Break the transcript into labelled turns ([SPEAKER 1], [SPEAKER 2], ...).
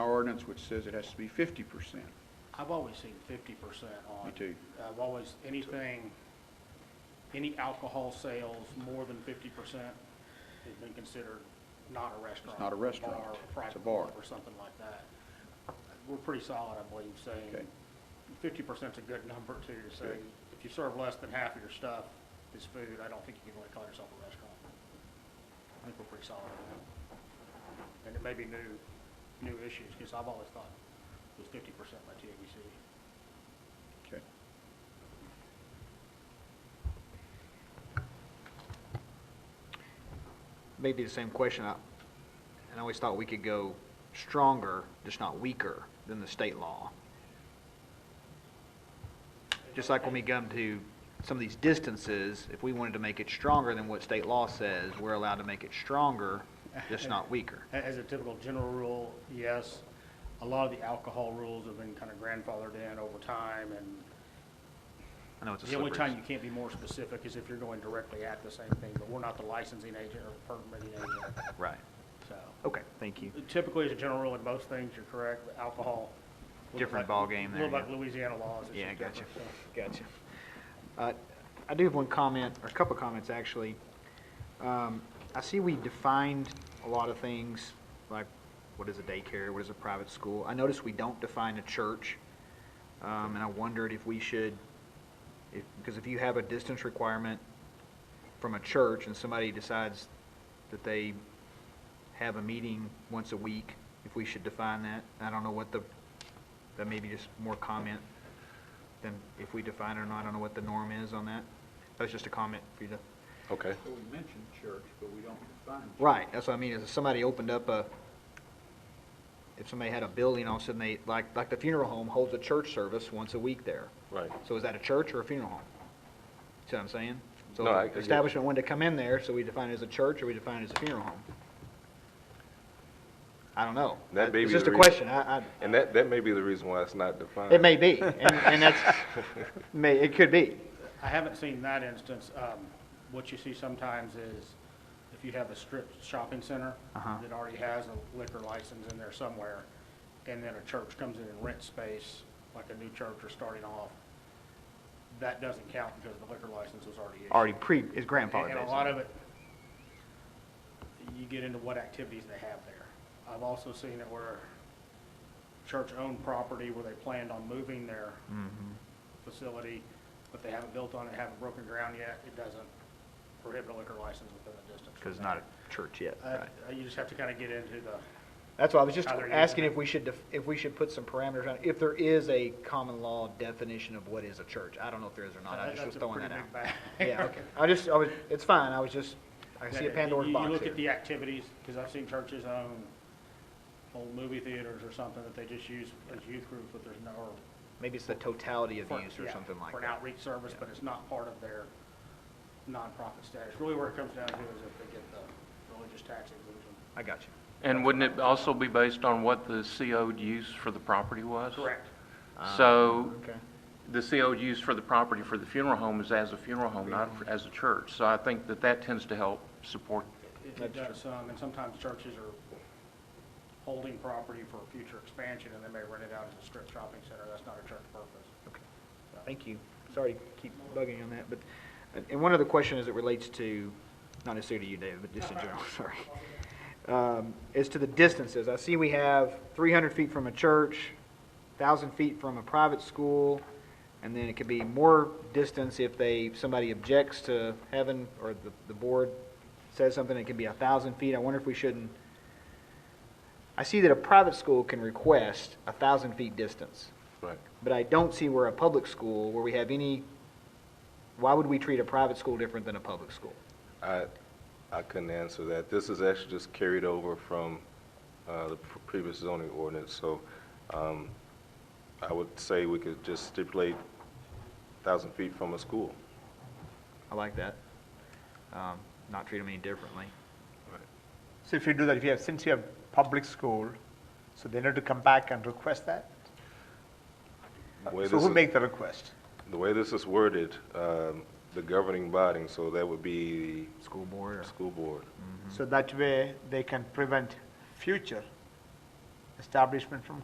[SPEAKER 1] ordinance which says it has to be fifty percent.
[SPEAKER 2] I've always seen fifty percent on.
[SPEAKER 1] Me too.
[SPEAKER 2] I've always, anything, any alcohol sales more than fifty percent has been considered not a restaurant.
[SPEAKER 1] not a restaurant.
[SPEAKER 2] bar, or
[SPEAKER 1] It's a
[SPEAKER 2] private
[SPEAKER 1] bar.
[SPEAKER 2] club Or something like that. We're pretty solid, I believe,
[SPEAKER 1] Okay.
[SPEAKER 2] saying fifty percent's a good number too, to say,
[SPEAKER 1] Good.
[SPEAKER 2] if you serve less than half of your stuff is food, I don't think you can really call yourself a restaurant. I think we're pretty solid on that. And it may be new, new issues, because I've always thought it was fifty percent by TABC.
[SPEAKER 1] Okay.
[SPEAKER 3] Maybe the same question, I, and I always thought we could go stronger, just not weaker than the state law. Just like when we come to some of these distances, if we wanted to make it stronger than what state law says, we're allowed to make it stronger, just not weaker.
[SPEAKER 2] A- As a typical general rule, yes. A lot of the alcohol rules have been kind of grandfathered in over time, and
[SPEAKER 3] I know it's a
[SPEAKER 2] the only
[SPEAKER 3] slippery.
[SPEAKER 2] time you can't be more specific is if you're going directly at the same thing, but we're not the licensing agent or permitting agent,
[SPEAKER 3] Right,
[SPEAKER 2] so.
[SPEAKER 3] okay, thank you.
[SPEAKER 2] Typically, as a general rule, in most things, you're correct, but alcohol. a little
[SPEAKER 3] Different
[SPEAKER 2] like-
[SPEAKER 3] ballgame
[SPEAKER 2] A
[SPEAKER 3] there,
[SPEAKER 2] little like
[SPEAKER 3] yeah.
[SPEAKER 2] Louisiana laws. it's
[SPEAKER 3] Yeah,
[SPEAKER 2] just
[SPEAKER 3] gotcha,
[SPEAKER 2] different, so.
[SPEAKER 3] gotcha. Uh, I do have one comment, or a couple comments, actually. Um, I see we defined a lot of things, like what is a daycare, what is a private school. I noticed we don't define a church, um, and I wondered if we should, if, because if you have a distance requirement from a church and somebody decides that they have a meeting once a week, if we should define that. I don't know what the, that may be just more comment than if we define it or not. I don't know what the norm is on that. That was just a comment for you to.
[SPEAKER 4] Okay.
[SPEAKER 5] Well, we mentioned church, but we don't define church.
[SPEAKER 3] Right, that's what I mean, is if somebody opened up a, if somebody had a building, all of a sudden they, like, like the funeral home holds a church service once a week there.
[SPEAKER 4] Right.
[SPEAKER 3] So is that a church or a funeral home? See what I'm saying? So
[SPEAKER 4] No, I-
[SPEAKER 3] if
[SPEAKER 4] I get it.
[SPEAKER 3] the establishment wanted to come in there, so we define it as a church or we define it as a funeral home? I don't know.
[SPEAKER 4] That may be
[SPEAKER 3] It's just
[SPEAKER 4] the
[SPEAKER 3] a
[SPEAKER 4] reason-
[SPEAKER 3] question, I, I,
[SPEAKER 4] And that, that may be the reason why it's not defined.
[SPEAKER 3] it may be, and, and that's, may, it could be.
[SPEAKER 2] I haven't seen that instance. Um, What you see sometimes is if you have a strip shopping center
[SPEAKER 3] Uh-huh.
[SPEAKER 2] that already has a liquor license in there somewhere, and then a church comes in and rents space, like a new church or starting off, that doesn't count because the liquor license was already issued.
[SPEAKER 3] Already pre, is grandfathered.
[SPEAKER 2] And a
[SPEAKER 3] basically.
[SPEAKER 2] lot of it, you get into what activities they have there. I've also seen it where church-owned property where they planned on moving their facility, but they haven't built on it, haven't broken ground yet, it doesn't prohibit a liquor license within a distance. from
[SPEAKER 3] Because it's not
[SPEAKER 2] that.
[SPEAKER 3] a church yet,
[SPEAKER 2] Uh,
[SPEAKER 3] right?
[SPEAKER 2] uh, You just have to kind of get into the,
[SPEAKER 3] That's why I was just
[SPEAKER 2] How they're using
[SPEAKER 3] asking
[SPEAKER 2] it.
[SPEAKER 3] if we should, def- if we should put some parameters on, it, if there is a common law definition of what is a church. I don't know if there is or not,
[SPEAKER 2] Uh,
[SPEAKER 3] I Oh, just
[SPEAKER 2] that's
[SPEAKER 3] was
[SPEAKER 2] a
[SPEAKER 3] throwing
[SPEAKER 2] pretty
[SPEAKER 3] that out.
[SPEAKER 2] big bag.
[SPEAKER 3] Yeah, okay. I just, I was, it's fine, I was just, I see
[SPEAKER 2] Yeah,
[SPEAKER 3] a Pandora's
[SPEAKER 2] you-
[SPEAKER 3] box
[SPEAKER 2] You look
[SPEAKER 3] here.
[SPEAKER 2] at the activities, because I've seen churches own old movie theaters or something that they just use as youth groups, but there's no, or
[SPEAKER 3] Maybe it's the totality of
[SPEAKER 2] for-
[SPEAKER 3] use or
[SPEAKER 2] yeah,
[SPEAKER 3] something like
[SPEAKER 2] For an
[SPEAKER 3] that.
[SPEAKER 2] outreach service, but it's not part of their nonprofit status. Really where it comes down to is if they get the religious tax exemption.
[SPEAKER 3] I got you.
[SPEAKER 6] And wouldn't it also be based on what the CO'd use for the property was?
[SPEAKER 2] Correct.
[SPEAKER 6] Ah, So
[SPEAKER 3] Okay.
[SPEAKER 6] the CO'd use for the property for the funeral home is as a funeral home, not for- as a church. So I think that that tends to help support.
[SPEAKER 2] It- It
[SPEAKER 3] That's
[SPEAKER 2] does some, and sometimes churches are holding property for future expansion, and they may rent it out as a strip shopping center. That's not a church purpose.
[SPEAKER 3] Okay. Thank you. Sorry to keep bugging you on that, but, and- and one other question as it relates to, not necessarily to you, David, but just in general, sorry. Um, Is to the distances. I see we have three hundred feet from a church, thousand feet from a private school, and then it could be more distance if they, somebody objects to having, or the, the board says something, it could be a thousand feet. I wonder if we shouldn't, I see that a private school can request a thousand feet distance.
[SPEAKER 4] Right.
[SPEAKER 3] But I don't see where a public school, where we have any, why would we treat a private school different than a public school?
[SPEAKER 4] I, I couldn't answer that. This is actually just carried over from uh, the pr- previous zoning ordinance, so um, I would say we could just stipulate 1,000 feet from a school.
[SPEAKER 3] I like that. Um, Not treat them any differently.
[SPEAKER 7] So if you do that, if you have, since you have public school, so they need to come back and request that?
[SPEAKER 4] The way
[SPEAKER 7] So
[SPEAKER 4] this
[SPEAKER 7] who
[SPEAKER 4] is-
[SPEAKER 7] make the request?
[SPEAKER 4] The way this is worded, um, the governing body, so that would be
[SPEAKER 3] School board
[SPEAKER 4] the
[SPEAKER 3] or,
[SPEAKER 4] school board.
[SPEAKER 7] So that way, they can prevent future establishment from